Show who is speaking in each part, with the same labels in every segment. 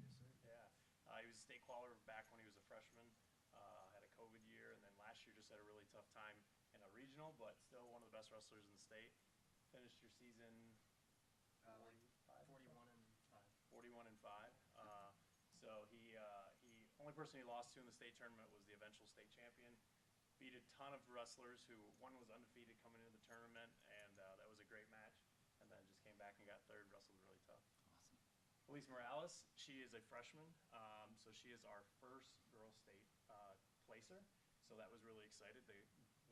Speaker 1: Uh, just had a really tough time in a regional, but still one of the best wrestlers in the state. Finished your season
Speaker 2: Uh, like
Speaker 1: Five.
Speaker 2: forty-one and five.
Speaker 1: 41 and 5. Uh, so he uh, he only person he lost to in the state tournament was the eventual state champion. Beat a ton of wrestlers who one was undefeated coming into the tournament, and uh, that was a great match. And then just came back and got third. Wrestled really tough.
Speaker 3: Awesome.
Speaker 1: Elise Morales, she is a freshman, um, so she is our first girl state uh, placer. So that was really excited. The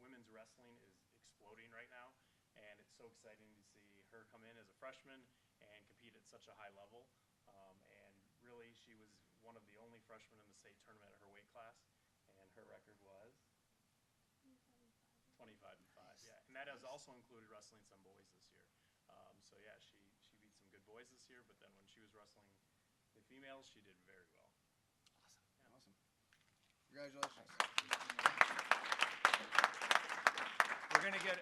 Speaker 1: women's wrestling is exploding right now, and it's so exciting to see her come in as a freshman and compete at such a high level. Um, and really, she was one of the only freshmen in the state tournament at her weight class, and her record was 25 and 5, yeah. And that has also included wrestling some boys this year. Um, so yeah, she, she beat some good boys this year, but then when she was wrestling the females, she did very well.
Speaker 3: Awesome.
Speaker 4: Awesome. Congratulations.
Speaker 3: We're gonna get,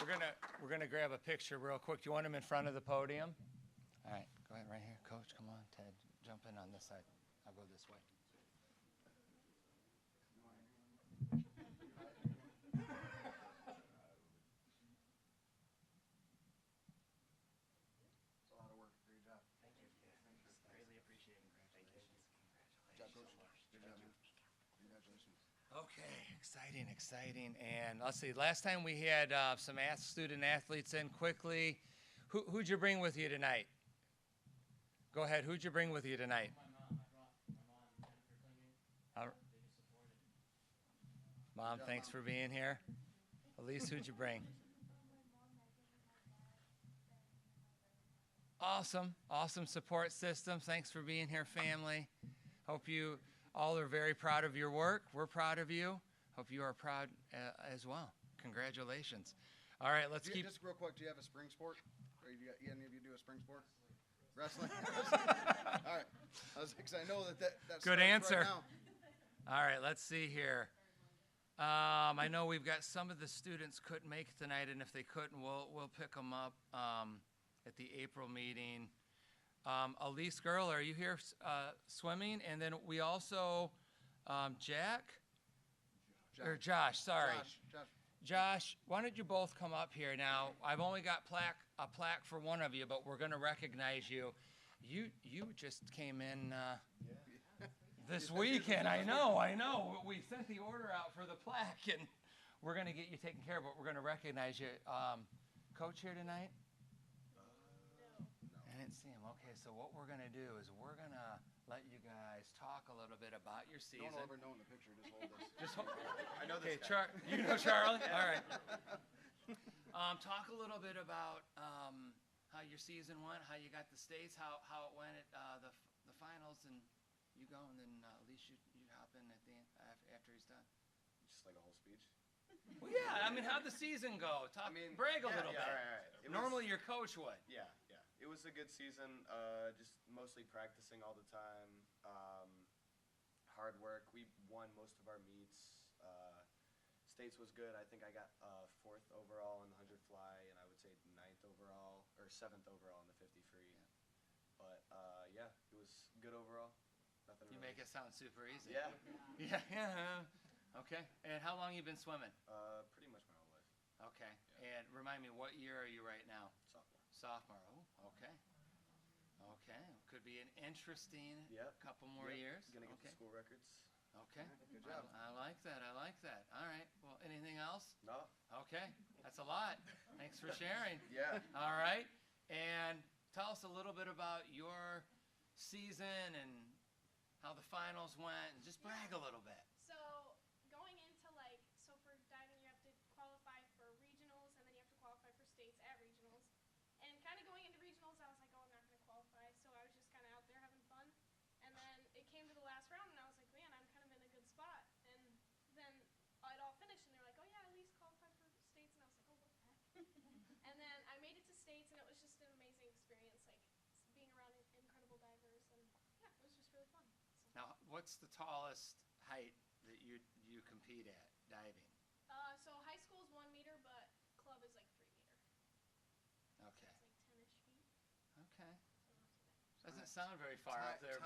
Speaker 3: we're gonna, we're gonna grab a picture real quick. Do you want them in front of the podium? All right, go ahead, right here. Coach, come on, Ted, jump in on this side. I'll go this way.
Speaker 4: It's a lot of work. Great job.
Speaker 2: Thank you. Thank you. Greatly appreciate it. Thank you.
Speaker 4: Good job, coach. Good job, man. Congratulations.
Speaker 3: Okay, exciting, exciting. And let's see, last time we had uh, some ath- student athletes in quickly. Who, who'd you bring with you tonight? Go ahead, who'd you bring with you tonight?
Speaker 5: My mom, I brought my mom and Jennifer Klinger.
Speaker 3: All right.
Speaker 5: They just supported.
Speaker 3: Mom,
Speaker 4: Yeah,
Speaker 3: thanks
Speaker 4: Mom.
Speaker 3: for being here. Elise, who'd you bring? Awesome, awesome support system. Thanks for being here, family. Hope you all are very proud of your work. We're proud of you. Hope you are proud uh, as well. Congratulations. All right, let's
Speaker 4: Do you-
Speaker 3: keep.
Speaker 4: Just real quick, do you have a spring sport? Or you got, any of you do a spring sport? Wrestling? All right. I was, because I know that that, that's.
Speaker 3: Good answer. All right, let's see here. Um, I know we've got some of the students couldn't make it tonight, and if they couldn't, we'll, we'll pick them up um, at the April meeting. Um, Elise Girl, are you here uh, swimming? And then we also, um, Jack or Josh, Er, sorry.
Speaker 4: Josh, Josh,
Speaker 3: Josh, why don't you both come up here now? I've only got plaque, a plaque for one of you, but we're going to recognize you. You you just came in uh, this weekend. I know, I know. We sent the order out for the plaque, and we're going to get you taken care of. But we're going to recognize you, um, coach here tonight. I didn't see him. Okay, so what we're going to do is we're going to let you guys talk a little bit about your
Speaker 4: no
Speaker 3: season.
Speaker 4: one will ever know in the picture, just hold this.
Speaker 3: Just ho-
Speaker 4: I know
Speaker 3: Okay,
Speaker 4: this guy.
Speaker 3: Char- you know Charlie? All right. Um, talk a little bit about, um, how your season went, how you got the states, how, how it went at, uh, the, f- the finals and you go and then, uh, at least you, you hop in at the end, af- after he's done.
Speaker 4: Just like a whole speech.
Speaker 3: Well, yeah, I mean, how'd the season go? Talk,
Speaker 6: mean,
Speaker 3: Uh, brag a
Speaker 6: yeah,
Speaker 3: little bit.
Speaker 6: yeah, all right, all right. It was-
Speaker 3: Normally your coach would.
Speaker 6: Yeah, yeah. It was a good season. Uh, just mostly practicing all the time. Um, hard work. We won most of our meets. Uh, States was good. I think I got uh, fourth overall in the 100 fly, and I would say ninth overall or seventh overall in the 50 free.
Speaker 3: Yeah.
Speaker 6: But uh, yeah, it was good overall. Nothing.
Speaker 3: You
Speaker 6: really.
Speaker 3: make it sound super easy.
Speaker 6: Yeah.
Speaker 3: Yeah, yeah. Okay. And how long you been swimming?
Speaker 6: Uh, pretty much my whole life.
Speaker 3: Okay. And remind me, what year are you right now?
Speaker 6: Sophomore.
Speaker 3: Sophomore, oh, okay. Okay, could be an interesting
Speaker 6: Yep.
Speaker 3: couple more
Speaker 6: Yep,
Speaker 3: years.
Speaker 6: Gonna get
Speaker 3: okay.
Speaker 6: the school records.
Speaker 3: Okay.
Speaker 4: Good
Speaker 3: I-
Speaker 4: job.
Speaker 3: I, like that. I like that. All right. Well, anything else?
Speaker 6: No.
Speaker 3: Okay, that's a lot. Thanks for sharing.
Speaker 6: Yeah.
Speaker 3: All right. And tell us a little bit about your season and how the finals went, and just brag a little bit.
Speaker 7: So going into like so for diving you have to qualify for regionals and then you have to qualify for states at regionals. And kind of going into regionals I was like, oh I'm not going to qualify. So I was just kind of out there having fun. And then it came to the last round and I was like, man, I'm kind of in a good spot. And then it all finished and they're like, oh yeah, at least qualify for states and I was like, oh what the heck. and then I made it to states and it was just an amazing experience like s- being around in- incredible divers and yeah, it was just really fun. So,
Speaker 3: Now, what's the tallest height that you you compete at diving?
Speaker 7: uh, so high school is one meter, but club is like three meter.
Speaker 3: Okay.
Speaker 7: It's like 10-ish feet.
Speaker 3: Okay.
Speaker 7: So not too bad.
Speaker 3: Doesn't sound very far
Speaker 4: Ti-
Speaker 3: up there,
Speaker 4: ti-